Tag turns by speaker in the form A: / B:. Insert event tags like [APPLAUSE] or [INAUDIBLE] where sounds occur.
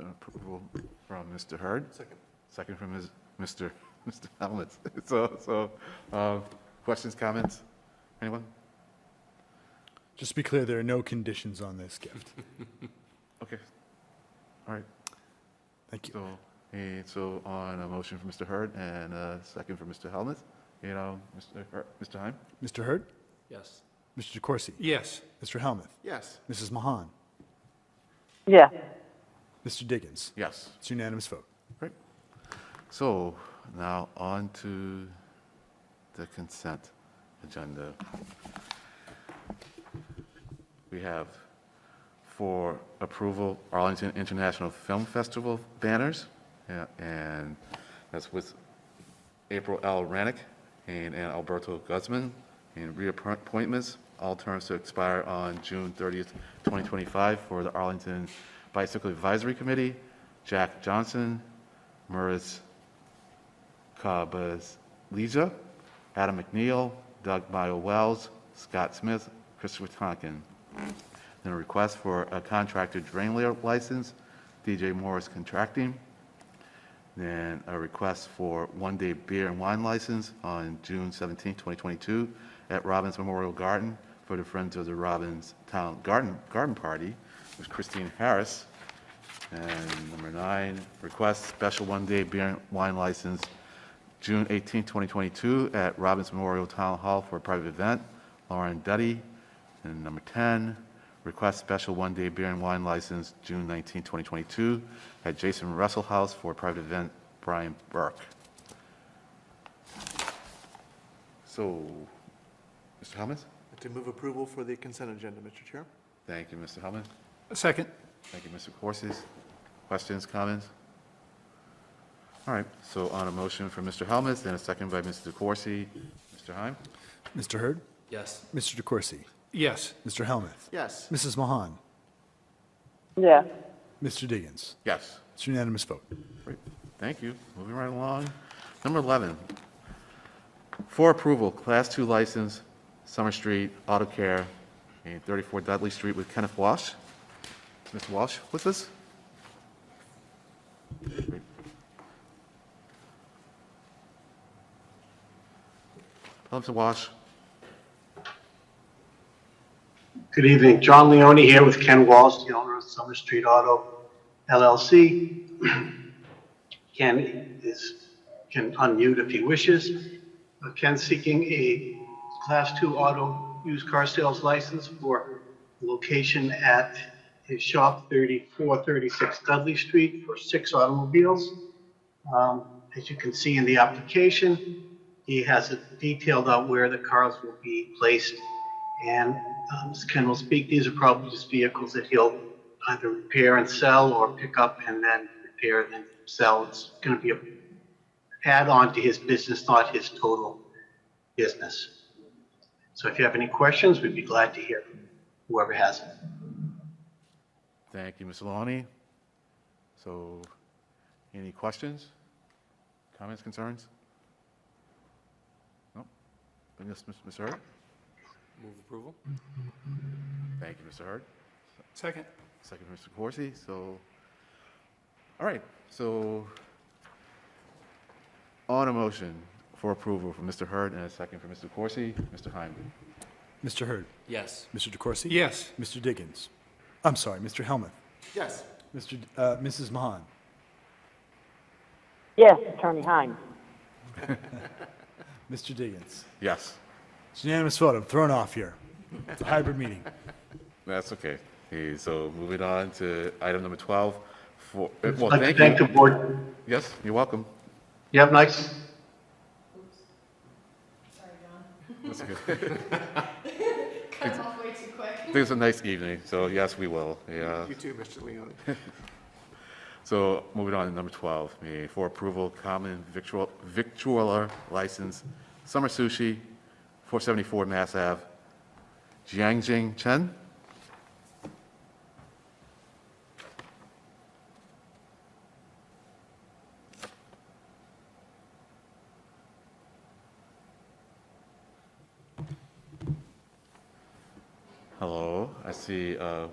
A: Approval from Mr. Hurd. Second. Second from Ms. [LAUGHS] Mr. Mr. Helmets. [LAUGHS] So, so, uh, questions, comments? Anyone?
B: Just to be clear, there are no conditions on this gift.
A: Okay. All right,
B: Thank you.
A: so, eh, so on a motion from Mr. Hurd and a second from Mr. Helmets, you know, Mr. Hurd- Mr. Heim?
B: Mr. Hurd,
C: Yes.
B: Mr. DeCoursey,
C: Yes.
B: Mr. Helmuth,
A: Yes.
B: Mrs. Mahan,
D: Yeah,
B: Mr. Diggins.
A: Yes.
B: It's unanimous vote.
A: Right. So now on to the consent agenda. We have for approval Arlington International Film Festival banners, yeah, and that's with April L. Rannick and and Alberto Guzman, and reappointments, all terms to expire on June 30th, 2025, for the Arlington Bicycle Advisory Committee, Jack Johnson, Maurice Cabas-Leja, Adam McNeil, Doug Myo Wells, Scott Smith, Christopher Tonkin. Then a request for a contractor drain layer license, DJ Morris Contracting. Then a request for one-day beer and wine license on June 17, 2022, at Robbins Memorial Garden for the Friends of the Robbins Town Garden, Garden Party with Christine Harris. And number nine, request special one-day beer and wine license, June 18, 2022, at Robbins Memorial Town Hall for a private event, Lauren Duddy. And number 10, request special one-day beer and wine license, June 19, 2022, at Jason Russell House for a private event, Brian Burke. So, Mr. Hellman?
E: To move approval for the consent agenda, Mr. Chair.
A: Thank you, Mr. Hellman.
C: Second.
A: Thank you, Mr. Corsi's. Questions, comments? All right, so on a motion from Mr. Helmuth and a second by Mr. Corsi, Mr. Heim?
B: Mr. Hurd,
C: Yes.
B: Mr. DeCoursey,
C: Yes.
B: Mr. Helmuth,
E: Yes.
B: Mrs. Mahan,
D: yeah,
B: Mr. Diggins.
A: Yes.
B: It's unanimous vote.
A: Great, thank you. Moving right along. Number 11, for approval, Class 2 license, Summer Street Auto Care, and 34 Dudley Street with Kenneth Walsh. Is Mr. Walsh with us? Great. Hello, Mr. Walsh.
F: Good evening. John Leone here with Ken Walsh, the owner of Summer Street Auto LLC. [CLEARS THROAT] Ken is, can unmute if he wishes. Uh, Ken's seeking a Class II auto used car sales license for location at his shop 3436 Dudley Street for six automobiles. Um, As you can see in the application, he has it detailed out where the cars will be placed. And um, as Ken will speak, these are probably just vehicles that he'll either repair and sell or pick up and then repair and then sell. It's going to be an add-on to his business, not his total business. So if you have any questions, we'd be glad to hear from whoever has them.
A: Thank you, Mr. Lonnie. So, any questions, comments, concerns? No? I guess, Ms. Ms. Hurd?
C: Move approval?
A: Thank you, Mr. Hurd.
C: Second.
A: Second, Mr. Corsi, so, all right, so on a motion for approval from Mr. Hurd and a second for Mr. Corsi, Mr. Heim.
B: Mr. Hurd,
C: Yes.
B: Mr. DeCoursey.
C: Yes.
B: Mr. Diggins. I'm sorry, Mr. Helmuth,
E: Yes.
B: Mr. D- uh, Mrs. Mahan,
D: yes, Attorney Heim.
B: Mr. Diggins.
A: Yes,
B: It's unanimous vote. I'm thrown off here. It's a hybrid meeting.
A: that's okay. Okay, So moving on to item number 12, for, uh, well,
F: I'd like to
A: thank
F: thank the
A: you.
F: board.
A: Yes, you're welcome.
F: You have nice,
A: That's okay.
G: Cut him off way too quick.
A: I think it's a nice evening, so yes, we will, yeah.
E: You too, Mr. Leone.
A: So moving on to number 12, eh, for approval, common victual- victualler license, Summer Sushi, 474 Mass Ave, Jiangjing Chen? Hello, I see uh,